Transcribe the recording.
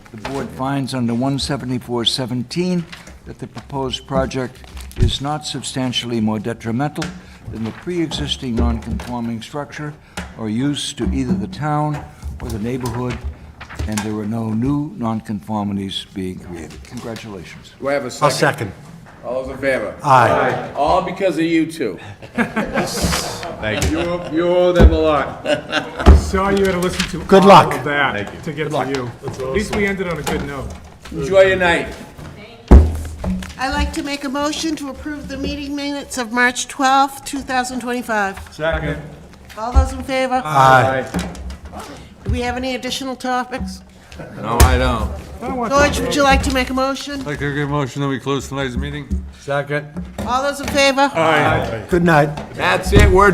The board finds under 17417 that the proposed project is not substantially more detrimental than the pre-existing non-conforming structure or use to either the town or the neighborhood, and there are no new nonconformities being created. Congratulations. Do I have a second? Uh, I'll second. All those in favor? Aye. All because of you two. Thank you. You owe, you owe them a lot. Saw you had to listen to Good all luck. of Thank you. that to get to you. At least we ended on a good note. Enjoy your night. I'd like to make a motion to approve the meeting minutes of March 12th, 2025. Second. All those in favor? Aye. Do we have any additional topics? No, I don't. George, would you like to make a motion? Like a good motion that we close tonight's meeting? Second. All those in favor? Good night. That's it, we're